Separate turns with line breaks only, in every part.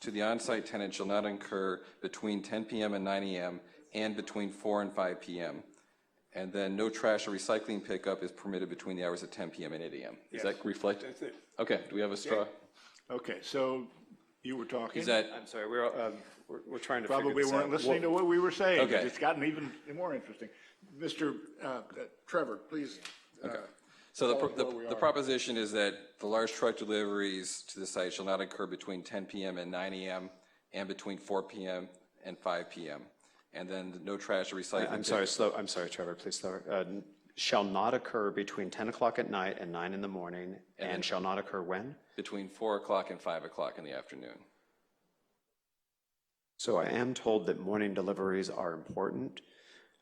to the on-site tenant shall not incur between 10 PM and 9 AM and between 4 and 5 PM. And then no trash or recycling pickup is permitted between the hours of 10 PM and 8 AM. Is that reflect?
That's it.
Okay, do we have a straw?
Okay, so you were talking.
Is that,
I'm sorry, we're, all- we're, we're trying to figure
Probably
this
weren't
out.
listening to what we were saying. 'cause
Okay.
It's gotten even more interesting. Mr. uh, uh, Trevor, please. uh,
so the,
tell us
pro-
where we
the- the
are.
proposition is that the large truck deliveries to the site shall not incur between 10 PM and 9 AM and between 4 PM and 5 PM. And then no trash or recycling.
I'm sorry, slow, I'm sorry, Trevor, please slow. Uh, n- Shall not occur between 10 o'clock at night and 9 in the morning, and shall not occur when?
Between 4 o'clock and 5 o'clock in the afternoon.
So I am told that morning deliveries are important,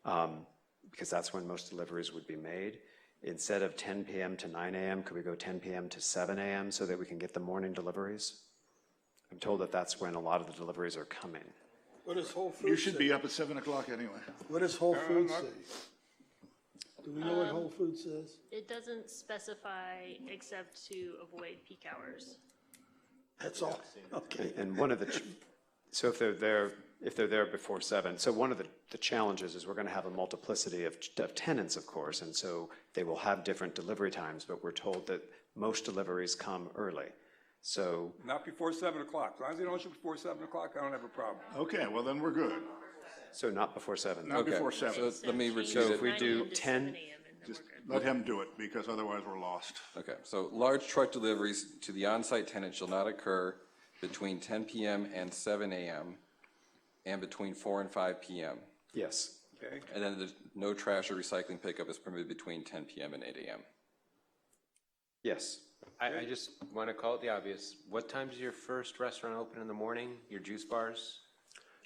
um, because that's when most deliveries would be made. Instead of 10 PM to 9 AM, could we go 10 PM to 7 AM so that we can get the morning deliveries? I'm told that that's when a lot of the deliveries are coming.
What does Whole
You
Foods
should
say?
be up at 7 o'clock anyway.
What does Whole Foods say? Do we know what Whole Foods says?
It doesn't specify except to avoid peak hours.
That's all. Okay.
And- And one of the, ch- so if they're there, if they're there before seven, so one of the, the challenges is we're gonna have a multiplicity of, ch- of tenants, of course, and so they will have different delivery times, but we're told that most deliveries come early. So,
Not before seven o'clock. As long as they don't shoot before seven o'clock, I don't have a problem.
Okay, well then we're good.
so not before seven.
Not
Okay,
before 7.
so let me repeat
So
it.
if we
9
do
a.m.
10
to 7 a.m. and then we're good.
Let him do it because otherwise we're lost.
Okay, so large truck deliveries to the on-site tenant shall not occur between 10 PM and 7 AM and between 4 and 5 PM.
Yes.
And then there's no trash or recycling pickup is permitted between 10 PM and 8 AM.
Yes.
I, I just want to call it the obvious. What time does your first restaurant open in the morning? Your juice bars?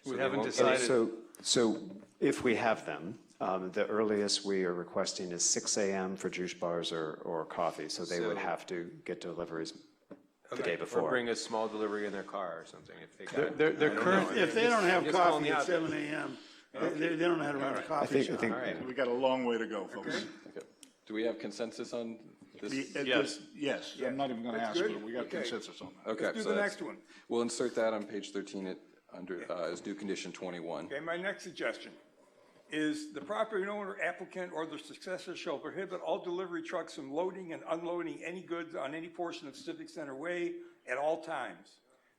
We haven't
So-
decided,
So, so if we have them, um, the earliest we are requesting is six AM for juice bars or, or coffee, so they would
So-
have to get deliveries the day
Or
before.
bring a small delivery in their car or something if they got.
their, their current,
If they don't have
Just call
coffee
me
at
out.
seven AM, they, they they don't know how to run a
I
coffee
think, I
shop.
think,
We got a long way to go, folks.
Okay. Do we have consensus on this?
The- uh,
Yes.
Yes, I'm not even going to ask,
good?
but we got
Okay.
consensus on that.
Okay,
Do
so
the
that's-
next one.
We'll insert that on page 13 at, under, uh, as new condition 21.
Okay, my next suggestion is the property owner, applicant, or their successor shall prohibit all delivery trucks from loading and unloading any goods on any portion of Civic Center Way at all times.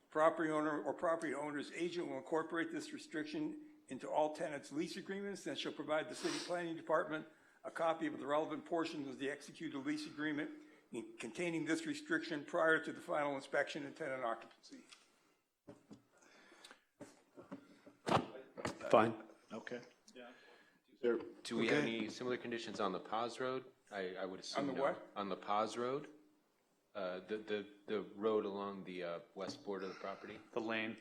Property owner or property owner's agent will incorporate this restriction into all tenants' lease agreements and shall provide the city planning department a copy of the relevant portions of the executed lease agreement containing this restriction prior to the final inspection and tenant occupancy.
fine.
Okay. There-
Do we have
okay.
any similar conditions on the Paz Road? I, I would assume
the
no.
what?
On the Paz Road? Uh, the, the, the road along the, uh, west border of the property,
the lane.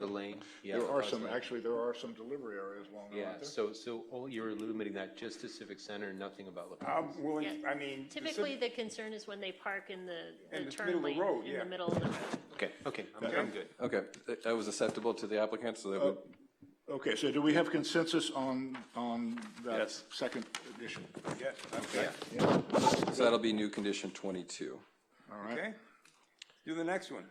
the lane? Yeah,
There
the
are
Paz
some,
Road.
actually, there are some delivery areas along there,
Yeah,
aren't there?
so, so all, you're limiting that just to Civic Center, nothing about La Paz?
I'm willing,
Yeah.
I mean. the civ-
Typically, the concern is when they park in the,
In
the
the middle
turn
of the
lane,
road,
in
yeah.
the middle of the road.
Okay, okay, I'm, I'm good.
Okay, that- that was acceptable to the applicant, so that would,
Okay, so do we have consensus on, on that
Yes.
second edition?
Yes, okay, Oh,
so that'll be new condition 22.
okay. Do the next one.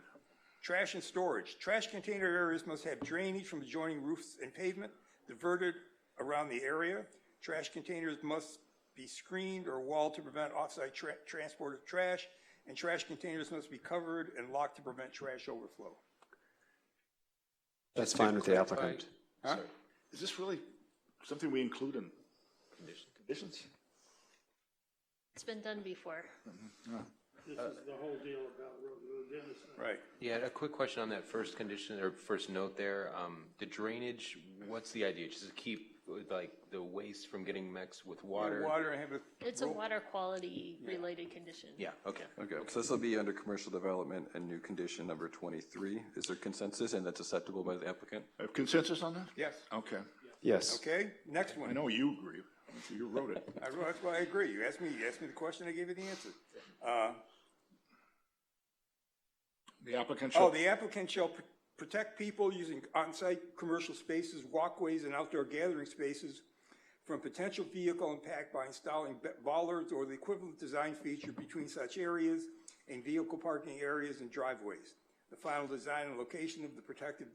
Trash and storage. Trash container areas must have drainage from adjoining roofs and pavement diverted around the area. Trash containers must be screened or walled to prevent offsite tra- transport of trash, and trash containers must be covered and locked to prevent trash overflow.
That's fine with the
clarify-
applicant.
Is this really something we include in conditions?
It's been done before.
This is the whole deal about road, Dennis.
Right.
Yeah, a quick question on that first condition, or first note there, um, the drainage, what's the idea? Just to keep, like, the waste from getting mixed with water?
Water and have a.
It's a water quality related condition.
Yeah, okay.
Okay, so this will be under commercial development and new condition number 23. Is there consensus, and that's acceptable by the applicant?
Have Uh, consensus on that?
Yes,
Okay.
Yes.
okay, next
I
one.
know you agree. You wrote it.
I, well, that's why I agree. You asked me, you asked me the question, I gave you the answer. Uh,
The applicant
Oh,
shall,
the applicant shall pr- protect people using on-site commercial spaces, walkways, and outdoor gathering spaces from potential vehicle impact by installing ba- bollards or the equivalent design feature between such areas and vehicle parking areas and driveways. the final design and location of the protective